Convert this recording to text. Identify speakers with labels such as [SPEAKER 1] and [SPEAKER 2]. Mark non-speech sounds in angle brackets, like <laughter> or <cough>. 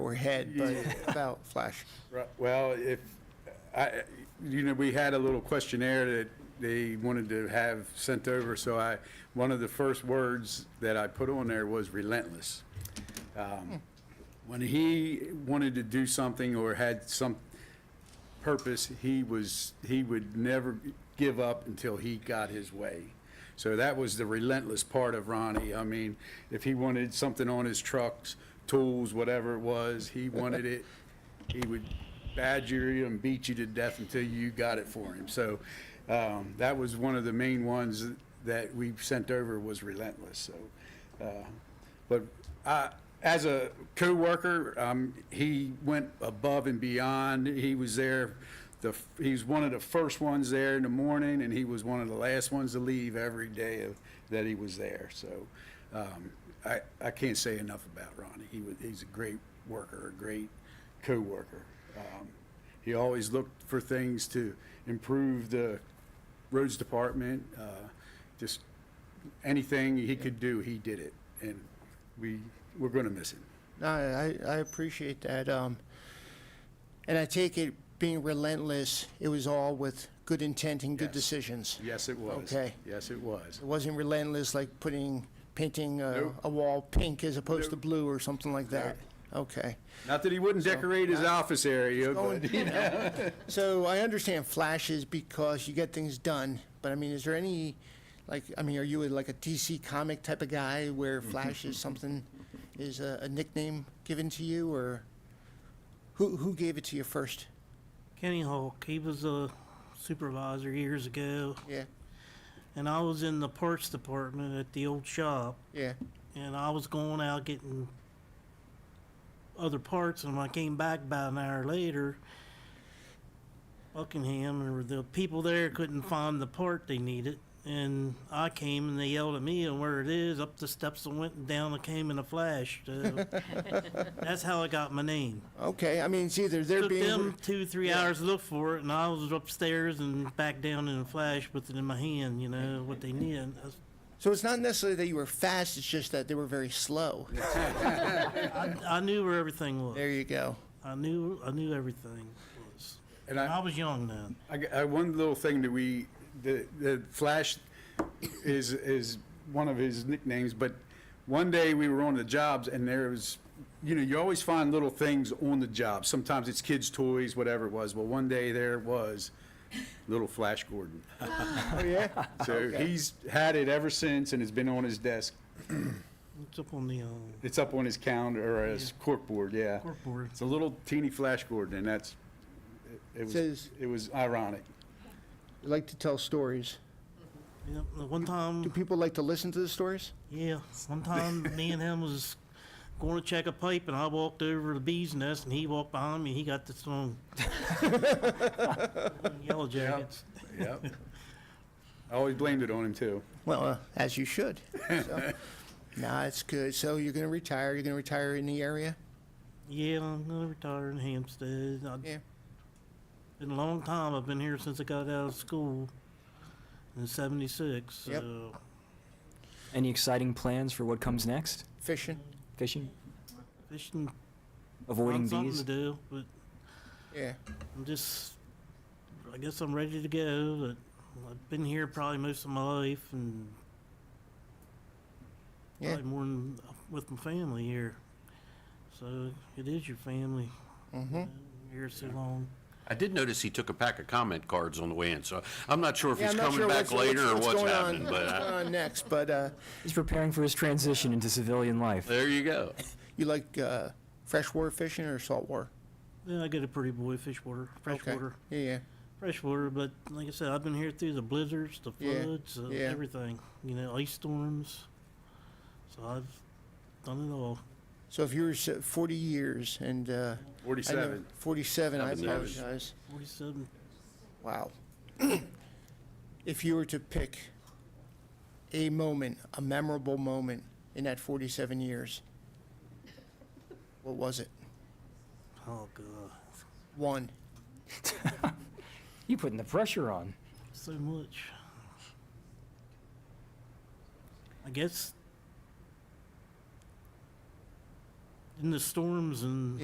[SPEAKER 1] or head, but
[SPEAKER 2] <laughs>
[SPEAKER 1] about flash.
[SPEAKER 2] Right, Well, if, I, you know, we had a little questionnaire that they wanted to have sent over, so I, one of the first words that I put on there was relentless. Um, When he wanted to do something or had some purpose, he was, he would never give up until he got his way. So that was the relentless part of Ronnie. I mean, if he wanted something on his trucks, tools, whatever it was, he wanted it, he would badger you and beat you to death until you got it for him. So um, that was one of the main ones that we sent over was relentless. So, uh, but I, as a coworker, um, he went above and beyond. He was there. The, he was one of the first ones there in the morning, and he was one of the last ones to leave every day of, that he was there. So, um, I, I can't say enough about Ronnie. He was, he's a great worker, a great coworker. Um, he always looked for things to improve the roads department. Uh, just anything he could do, he did it, and we we're gonna miss him.
[SPEAKER 1] No, I, I appreciate that. Um, and I take it being relentless, it was all with good intent and good
[SPEAKER 2] Yes.
[SPEAKER 1] decisions.
[SPEAKER 2] Yes, it was.
[SPEAKER 1] Okay.
[SPEAKER 2] Yes, it was.
[SPEAKER 1] It wasn't relentless like putting, painting a,
[SPEAKER 2] Nope.
[SPEAKER 1] a wall pink as opposed to
[SPEAKER 2] Nope.
[SPEAKER 1] blue or something like that. Okay.
[SPEAKER 2] Not that he wouldn't decorate his office area,
[SPEAKER 1] going-
[SPEAKER 2] but you know.
[SPEAKER 1] So I understand flashes because you get things done, but I mean, is there any, like, I mean, are you like a DC comic type of guy where Flash is something, is a, a nickname given to you, or who who gave it to you first?
[SPEAKER 3] Kenny Hulk, he was a supervisor years ago,
[SPEAKER 1] Yeah,
[SPEAKER 3] and I was in the parts department at the old shop,
[SPEAKER 1] yeah,
[SPEAKER 3] and I was going out getting other parts, and when I came back about an hour later, Buckingham or the people there couldn't find the part they needed, and I came and they yelled at me and where it is, up the steps and went and down and came in a flash. So that's how I got my name.
[SPEAKER 1] okay. I mean, it's either they're
[SPEAKER 3] took
[SPEAKER 1] being
[SPEAKER 3] them two, three hours to look for it, and I was upstairs and back down in a flash with it in my hand, you know, what they needed. I was-
[SPEAKER 1] so it's not necessarily that you were fast; it's just that they were very slow.
[SPEAKER 3] I knew where everything was.
[SPEAKER 1] There you go.
[SPEAKER 3] I knew, I knew everything was.
[SPEAKER 2] And
[SPEAKER 3] I
[SPEAKER 2] I,
[SPEAKER 3] was young then.
[SPEAKER 2] I, g- I- one little thing that we, the, the Flash is, is one of his nicknames, but one day we were on the jobs and there was, you know, you always find little things on the job. Sometimes it's kids' toys, whatever it was. Well, one day there was little Flash Gordon. <laughs>
[SPEAKER 1] Oh yeah.
[SPEAKER 2] So he's had it ever since and it's been on his desk
[SPEAKER 3] It's up on the, um,
[SPEAKER 2] It's up on his calendar or his corkboard, yeah.
[SPEAKER 3] Corkboard.
[SPEAKER 2] It's a little teeny flash Gordon, and that's, it- it was,
[SPEAKER 1] Says-
[SPEAKER 2] it was ironic.
[SPEAKER 1] You like to tell stories.
[SPEAKER 3] yeah, the one
[SPEAKER 1] Do
[SPEAKER 3] time,
[SPEAKER 1] people like to listen to the stories?
[SPEAKER 3] yeah, one time me and him was going to check a pipe, and I walked over to the bee's nest, and he walked behind me, he got the song. Yellow Jackets.
[SPEAKER 2] Yep. <laughs> I always blamed it on him, too.
[SPEAKER 1] Well, uh, as you should.
[SPEAKER 4] <laughs>
[SPEAKER 1] So, nah, it's good. So you're gonna retire. You're gonna retire in the area.
[SPEAKER 3] Yeah, I'm gonna retire in Hampstead. I-
[SPEAKER 1] Yeah.
[SPEAKER 3] Been a long time. I've been here since I got out of school in '76. So
[SPEAKER 1] Yep.
[SPEAKER 5] Any exciting plans for what comes next?
[SPEAKER 1] Fishing.
[SPEAKER 5] Fishing?
[SPEAKER 3] fishing,
[SPEAKER 5] Avoiding
[SPEAKER 3] find something
[SPEAKER 5] bees?
[SPEAKER 3] to do, but
[SPEAKER 1] Yeah.
[SPEAKER 3] I'm just, I guess I'm ready to go. But I've been here probably most of my life, and
[SPEAKER 1] Yeah.
[SPEAKER 3] probably more than with my family here. So it is your family.
[SPEAKER 1] Mm-hmm.
[SPEAKER 3] Here so long.
[SPEAKER 4] I did notice he took a pack of comment cards on the way in, so I'm not sure if he's coming
[SPEAKER 1] what's-
[SPEAKER 4] back later or what's
[SPEAKER 1] going
[SPEAKER 4] happening,
[SPEAKER 1] on,
[SPEAKER 4] but
[SPEAKER 1] what's going
[SPEAKER 4] uh,
[SPEAKER 1] on next. But uh,
[SPEAKER 5] He's preparing for his transition into civilian life.
[SPEAKER 4] there you go.
[SPEAKER 1] you like uh, freshwater fishing or saltwater?
[SPEAKER 3] Yeah, I get a pretty boy freshwater,
[SPEAKER 1] Okay.
[SPEAKER 3] freshwater.
[SPEAKER 1] Yeah, yeah.
[SPEAKER 3] freshwater, but like I said, I've been here through the blizzards, the
[SPEAKER 1] Yeah,
[SPEAKER 3] floods, uh,
[SPEAKER 1] yeah.
[SPEAKER 3] everything. You know, ice storms. So I've done it all.
[SPEAKER 1] So if you were s- 40 years and uh, I never-
[SPEAKER 2] 47.
[SPEAKER 1] 47, I
[SPEAKER 4] Seven years.
[SPEAKER 1] apologize.
[SPEAKER 3] Forty-seven.
[SPEAKER 1] Wow. if you were to pick a moment, a memorable moment in that 47 years, what was it?
[SPEAKER 3] Oh god,
[SPEAKER 1] One.
[SPEAKER 5] You putting the pressure on.
[SPEAKER 3] so much. I guess in the storms and